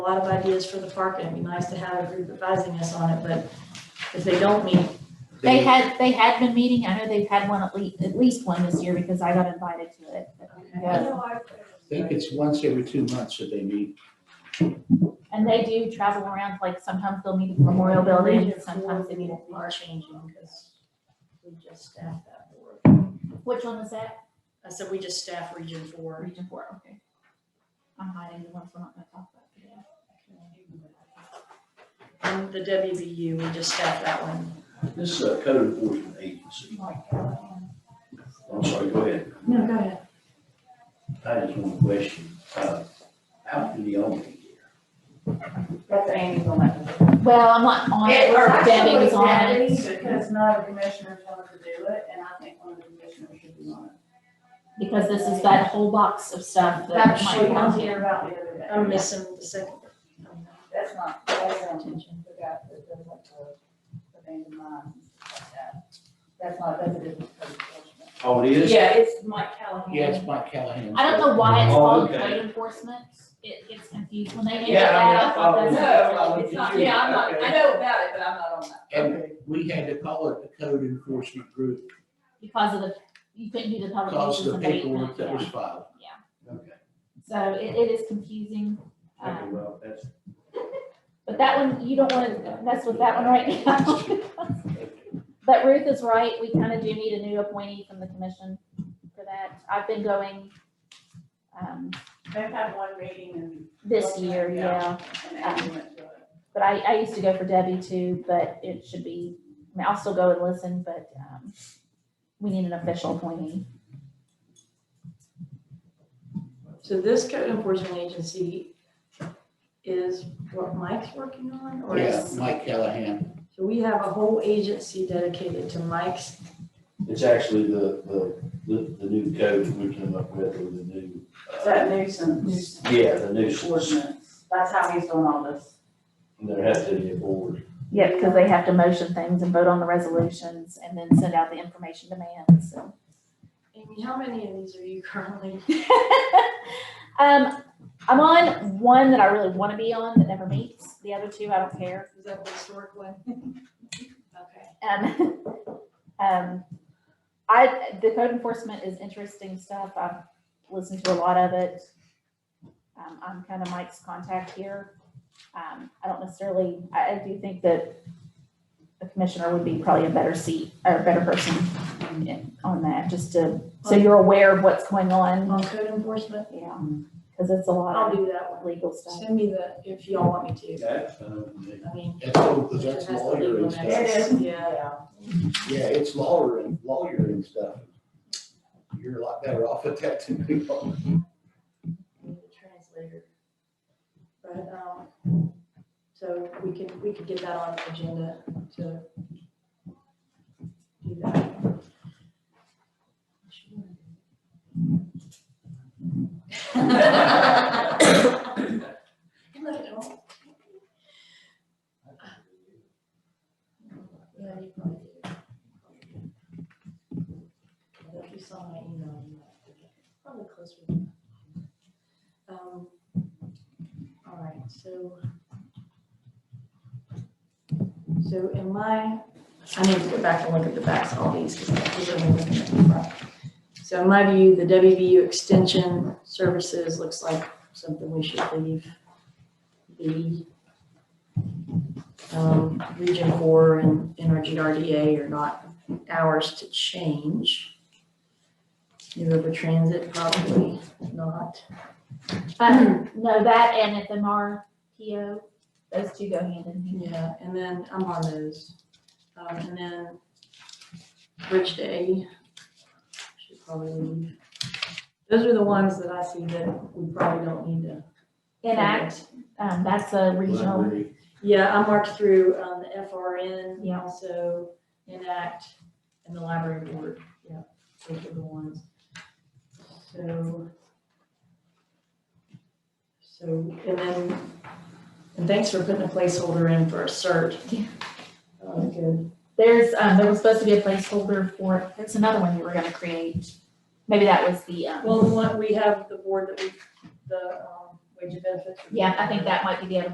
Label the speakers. Speaker 1: a lot of ideas for the park, and it'd be nice to have a group advising us on it, but if they don't meet,
Speaker 2: They had, they had been meeting, I know they've had one at least, at least one this year because I got invited to it. but they
Speaker 1: Okay.
Speaker 2: go.
Speaker 3: I think it's once every two months that they meet.
Speaker 2: And they do travel around, like sometimes they'll meet at the Memorial Building, sometimes they meet at.
Speaker 1: are changing, because we just staff that board.
Speaker 2: Which one is that?
Speaker 1: I said we just staff Region Four.
Speaker 2: Region four, okay. I'm hiding the ones we're not gonna talk about. today.
Speaker 1: And the WBU, we just staff that one.
Speaker 4: This is a code enforcement agency. I'm sorry, go ahead.
Speaker 1: No, go ahead.
Speaker 4: I just one question. Uh, How do the owner get here?
Speaker 5: That's Amy's on that.
Speaker 2: Well, I'm not on it, or Debbie was on it.
Speaker 5: Because none of the commissioners wanted to do it, and I think one of the commissioners should be on it.
Speaker 2: Because this is that whole box of stuff that
Speaker 5: That's what
Speaker 2: might
Speaker 5: you was
Speaker 2: come.
Speaker 5: here about the other day.
Speaker 1: I'm missing the second.
Speaker 5: That's not, that's not attention, the guy that does like the abandoned mines and stuff like that. That's not, that's a different code enforcement.
Speaker 4: Oh, it is?
Speaker 5: Yeah, it's Mike Callahan.
Speaker 3: Yeah, it's Mike Callahan.
Speaker 2: I don't know why it's
Speaker 4: Oh,
Speaker 2: called
Speaker 4: okay.
Speaker 2: code enforcement. It gets confused when they name it
Speaker 3: Yeah, I mean,
Speaker 2: that. I
Speaker 3: I
Speaker 2: thought
Speaker 3: thought-
Speaker 2: that's.
Speaker 3: No,
Speaker 5: No, it's not, yeah, I'm not, I know about it, but I'm not on that.
Speaker 3: And we had to call it the code enforcement group
Speaker 2: Because of the, you couldn't do the
Speaker 3: because
Speaker 2: publications
Speaker 3: of the
Speaker 2: and abatement.
Speaker 3: paperwork that was
Speaker 2: yeah.
Speaker 3: filed.
Speaker 4: Okay.
Speaker 2: So it, it is confusing.
Speaker 4: Okay,
Speaker 2: um,
Speaker 4: well, that's.
Speaker 2: But that one, you don't wanna mess with that one right now. But Ruth is right, we kind of do need a new appointee from the commission for that. I've been going um,
Speaker 5: They've had one meeting and.
Speaker 2: this year, yeah.
Speaker 5: And Amy went to it.
Speaker 2: But I, I used to go for Debbie too, but it should be, I mean, I'll still go and listen, but um, we need an official appointee.
Speaker 1: So this code enforcement agency is what Mike's working on, or
Speaker 3: Yeah,
Speaker 1: is?
Speaker 3: Mike Callahan.
Speaker 1: So we have a whole agency dedicated to Mike's,
Speaker 4: It's actually the, the, the, the new code we came up with, or the new.
Speaker 5: It's
Speaker 4: uh,
Speaker 5: That nuisance.
Speaker 4: Yeah, the nuisance.
Speaker 5: Ordinance, that's how he's doing all this.
Speaker 4: And There has to be a board.
Speaker 2: Yeah, because they have to motion things and vote on the resolutions and then send out the information demands, so.
Speaker 1: Amy, how many of these are you currently?
Speaker 2: Um, I'm on one that I really want to be on that never meets. The other two, I don't care.
Speaker 1: Is that the historic one? Okay.
Speaker 2: Um, um, I, the code enforcement is interesting stuff. I've listened to a lot of it. Um, I'm kind of Mike's contact here. Um, I don't necessarily, I, I do think that the commissioner would be probably a better seat, or a better person in- on that, just to, so you're aware of what's going on.
Speaker 1: On code enforcement,
Speaker 2: Yeah, because it's a lot
Speaker 1: I'll
Speaker 2: of
Speaker 1: do that one.
Speaker 2: legal stuff.
Speaker 1: Send me the, if y'all want me to.
Speaker 4: That's, um,
Speaker 1: I mean.
Speaker 3: That's all, because that's lawyer and
Speaker 1: It has
Speaker 3: stuff.
Speaker 1: to be one. Yeah.
Speaker 3: Yeah, it's lawyer and lawyer and stuff. You're a lot better off at that than me.
Speaker 1: I need a translator. But, um, so we could, we could get that on the agenda to do that. No, I don't. Yeah, you probably do. Although If you saw my email, you might forget. probably closer than that. Um, all right, so. So in my, I need to go back and look at the backs of all these because I was only looking at the front. So in my view, the WVU Extension Services looks like something we should leave be. Um, Region Four and NRGRDA are not ours to change. New River Transit, probably not.
Speaker 2: Um, no, that and FMR PO, those two go hand in hand.
Speaker 1: Yeah, and then I'm on those. Um, and then Bridge Day should probably leave. Those are the ones that I see that we probably don't need to.
Speaker 2: Enact, um, that's a regional.
Speaker 3: Library.
Speaker 1: Yeah, I marked through, um, the FRN,
Speaker 2: Yeah.
Speaker 1: also Enact and the library board, yeah, those are the ones. So. So, and then, and thanks for putting a placeholder in for a cert.
Speaker 2: Yeah.
Speaker 1: Uh, good.
Speaker 2: There's, um, there was supposed to be a placeholder for, there's another one you were gonna create. Maybe that was the, um,
Speaker 1: Well, the one, we have the board that we, the, um,
Speaker 5: Would you benefit? from-
Speaker 2: Yeah, I think that might be the other